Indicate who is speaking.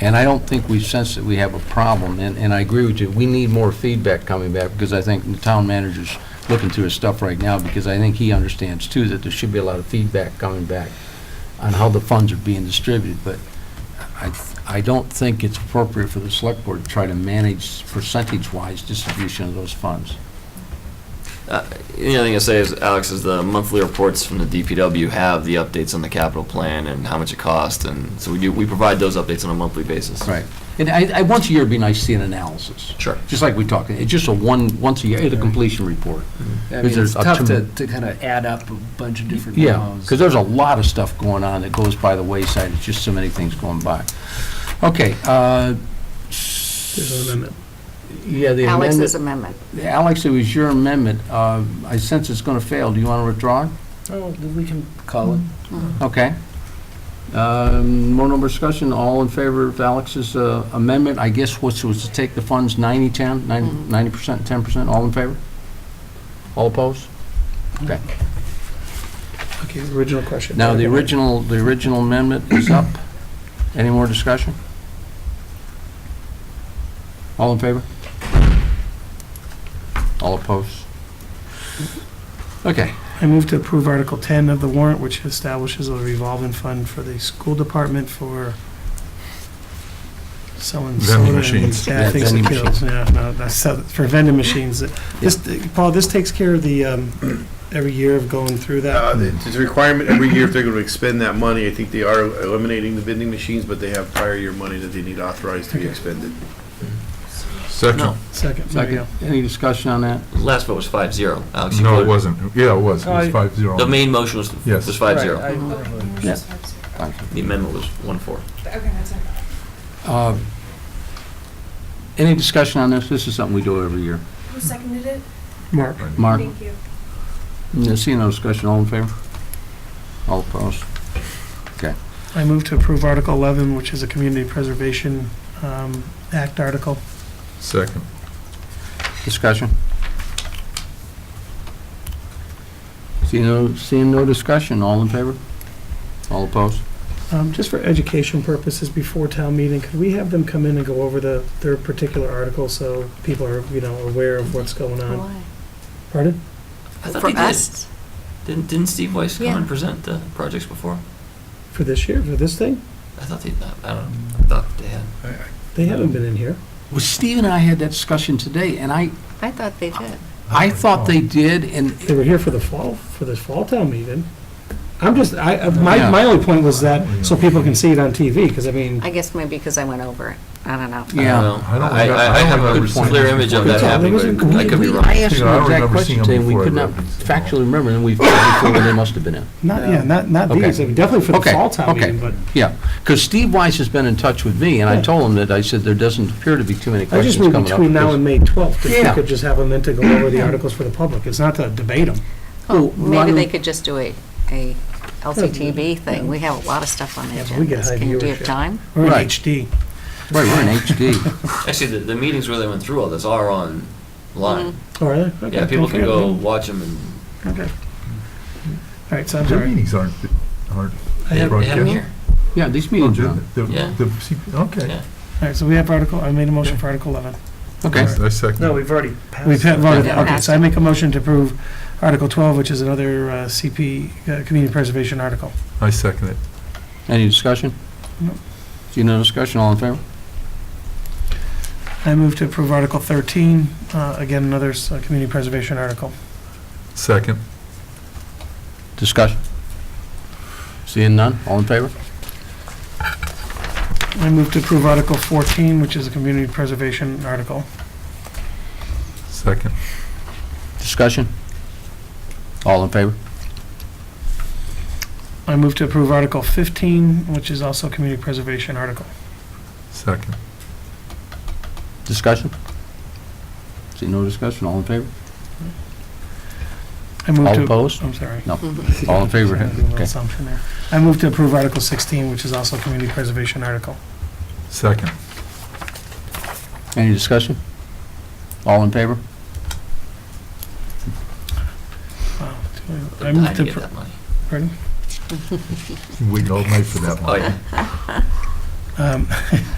Speaker 1: And I don't think we sense that we have a problem, and, and I agree with you, we need more feedback coming back, because I think the town manager's looking through his stuff right now, because I think he understands too that there should be a lot of feedback coming back on how the funds are being distributed, but I, I don't think it's appropriate for the select board to try to manage percentage-wise distribution of those funds.
Speaker 2: Uh, The other thing I say is, Alex, is the monthly reports from the DPW have the updates on the capital plan and how much it cost, and so we do, we provide those updates on a monthly basis.
Speaker 1: Right. And I, I, once a year, it'd be nice to see an analysis.
Speaker 2: Sure.
Speaker 1: Just like we talked, it's just a one, once a year, it's a completion report.
Speaker 3: I
Speaker 1: Is
Speaker 3: mean,
Speaker 1: there
Speaker 3: it's
Speaker 1: a
Speaker 3: tough to,
Speaker 1: term-
Speaker 3: to kind of add up a bunch of different
Speaker 1: Yeah,
Speaker 3: memos.
Speaker 1: because there's a lot of stuff going on that goes by the wayside, it's just so many things going by. Okay, uh. There's an amendment. Yeah, the amendment.
Speaker 4: Alex's amendment.
Speaker 1: Alex, it was your amendment, uh, I sense it's gonna fail, do you wanna withdraw? it?
Speaker 3: Oh, we can call it.
Speaker 5: Mm-hmm.
Speaker 1: Okay. Um, More no more discussion, all in favor of Alex's uh, amendment, I guess, which was to take the funds 90, 10, 90 percent, 10%, all in favor? All opposed? Okay.
Speaker 5: Okay, original question.
Speaker 1: Now, the original, the original amendment is up. Any more discussion? All in favor? All opposed? Okay.
Speaker 5: I move to approve Article 10 of the warrant, which establishes a revolving fund for the school department for selling
Speaker 6: Vending
Speaker 5: soda and
Speaker 6: machines.
Speaker 1: Yeah,
Speaker 5: bad things
Speaker 1: vending
Speaker 5: that kills. Yeah, no, that's, uh, for vending machines. This, Paul, this takes care of the, um, every year of going through
Speaker 7: Uh,
Speaker 5: that.
Speaker 7: It's a requirement every year if they're going to expend that money. I think they are eliminating the vending machines, but they have prior year money that they need authorized to be expended.
Speaker 6: Second.
Speaker 2: No,
Speaker 5: Second, there you
Speaker 1: Second,
Speaker 5: go.
Speaker 1: any discussion on that?
Speaker 2: last vote was five zero. Alex, you
Speaker 6: No, it
Speaker 2: voted.
Speaker 6: wasn't. Yeah, it was. It was five zero.
Speaker 2: The main motion was,
Speaker 6: Yes.
Speaker 2: was five zero.
Speaker 1: Yeah.
Speaker 2: The amendment was one four.
Speaker 1: Uh, Any discussion on this? This is something we do every year.
Speaker 8: Who seconded it?
Speaker 5: Mark,
Speaker 1: Mark,
Speaker 8: Thank you.
Speaker 1: no, seeing no discussion, all in favor? All opposed?
Speaker 5: I move to approve Article 11, which is a Community Preservation um, Act article.
Speaker 6: Second.
Speaker 1: Discussion? Seeing no, seeing no discussion, all in favor? All opposed?
Speaker 5: Um, Just for education purposes, before town meeting, could we have them come in and go over the, their particular article so people are, you know, aware of what's going on?
Speaker 4: Why?
Speaker 5: Pardon?
Speaker 2: I thought
Speaker 4: For
Speaker 2: they did.
Speaker 4: us?
Speaker 2: Didn't, didn't Steve Weiss come
Speaker 4: Yeah.
Speaker 2: and present the projects before?
Speaker 5: For this year, for this thing?
Speaker 2: I thought they, I don't know, I thought they had.
Speaker 5: They haven't been in here.
Speaker 1: Well, Steve and I had that discussion today, and I,
Speaker 4: I thought they did.
Speaker 1: I thought they did, and
Speaker 5: They were here for the fall, for the fall town meeting. I'm just, I, I-
Speaker 1: Yeah.
Speaker 5: my, my only point was that, so people can see it on TV, because I mean,
Speaker 4: I guess maybe because I went over it. I don't know.
Speaker 2: I don't
Speaker 1: Yeah.
Speaker 2: know.
Speaker 6: I don't
Speaker 2: I,
Speaker 6: remember-
Speaker 2: I I
Speaker 6: I don't
Speaker 2: have a
Speaker 6: remember seeing
Speaker 2: clear
Speaker 6: it
Speaker 2: image of
Speaker 6: before.
Speaker 2: that
Speaker 5: Yeah,
Speaker 2: happening,
Speaker 5: there
Speaker 2: but
Speaker 5: wasn't-
Speaker 2: I could be
Speaker 1: we-
Speaker 2: wrong.
Speaker 1: I asked
Speaker 6: Yeah,
Speaker 1: him
Speaker 6: I don't
Speaker 1: that
Speaker 6: remember
Speaker 1: question
Speaker 6: seeing them
Speaker 1: today, and we
Speaker 6: before I
Speaker 1: could not
Speaker 6: read these.
Speaker 1: factually remember, and we figured before they must have been in.
Speaker 5: not, yeah, not, not
Speaker 1: Okay.
Speaker 5: these, I mean, definitely for the
Speaker 1: Okay,
Speaker 5: fall town
Speaker 1: okay.
Speaker 5: meeting, but
Speaker 1: Yeah, because Steve Weiss has been in touch with me, and I
Speaker 5: Yeah.
Speaker 1: told him that, I said, there doesn't appear to be too many
Speaker 5: I just
Speaker 1: questions
Speaker 5: mean
Speaker 1: coming up.
Speaker 5: between now
Speaker 1: because-
Speaker 5: and May twelfth, if
Speaker 1: Yeah.
Speaker 5: we could just have them in to go over the articles for the public. It's not to debate them.
Speaker 4: Oh,
Speaker 1: Well,
Speaker 4: maybe
Speaker 1: Ron-
Speaker 4: they could just do a, a LCTV thing. We have a lot of stuff on the
Speaker 5: Yeah, but we get
Speaker 4: agenda.
Speaker 5: high
Speaker 4: Can you do you
Speaker 5: viewership.
Speaker 4: have time?
Speaker 5: We're in
Speaker 1: Right.
Speaker 5: HD.
Speaker 1: Right, we're in HD.
Speaker 2: Actually, the, the meetings where they went through all this are online.
Speaker 4: Mm-hmm.
Speaker 5: Oh, are they? Okay,
Speaker 2: Yeah, people can
Speaker 5: okay.
Speaker 2: go watch them and
Speaker 5: Okay. All right, so I'm
Speaker 6: Their
Speaker 5: sorry.
Speaker 6: meetings aren't, aren't
Speaker 5: I have-
Speaker 2: they have them
Speaker 6: broadcast.
Speaker 2: here.
Speaker 1: Yeah, these
Speaker 6: Oh,
Speaker 1: meetings are
Speaker 6: did
Speaker 1: on.
Speaker 6: they? The-
Speaker 2: Yeah.
Speaker 6: the CP
Speaker 2: Yeah.
Speaker 6: Okay.
Speaker 5: All right, so we have article, I made a motion for Article 11.
Speaker 1: Okay,
Speaker 6: I second.
Speaker 5: we've already passed. We've had voted, okay, so I make a motion to approve Article 12, which is another uh, CP, uh, Community Preservation article.
Speaker 6: I second it.
Speaker 1: any discussion?
Speaker 5: No.
Speaker 1: See no discussion, all in favor?
Speaker 5: I move to approve Article 13, uh, again, another s- uh, Community Preservation article.
Speaker 6: Second.
Speaker 1: Discussion? Seeing none, all in favor?
Speaker 5: I move to approve Article 14, which is a Community Preservation article.
Speaker 6: Second.
Speaker 1: Discussion? All in favor?
Speaker 5: I move to approve Article 15, which is also a Community Preservation article.
Speaker 6: Second.
Speaker 1: Discussion? See no discussion, all in favor?
Speaker 5: I move
Speaker 1: All
Speaker 5: to.
Speaker 1: opposed?
Speaker 5: I'm sorry.
Speaker 1: All in favor?
Speaker 5: Sorry, I did a little
Speaker 1: Okay.
Speaker 5: assumption there. I move to approve Article 16, which is also a Community Preservation article.
Speaker 6: Second.
Speaker 1: Any discussion? All in favor?
Speaker 5: Wow, do I- I
Speaker 2: They're
Speaker 5: move
Speaker 2: dying
Speaker 5: to
Speaker 2: to
Speaker 5: appro-
Speaker 2: get that money.
Speaker 5: Pardon?
Speaker 6: Oh, Waiting all night for that one.
Speaker 2: Oh, yeah.
Speaker 5: Um,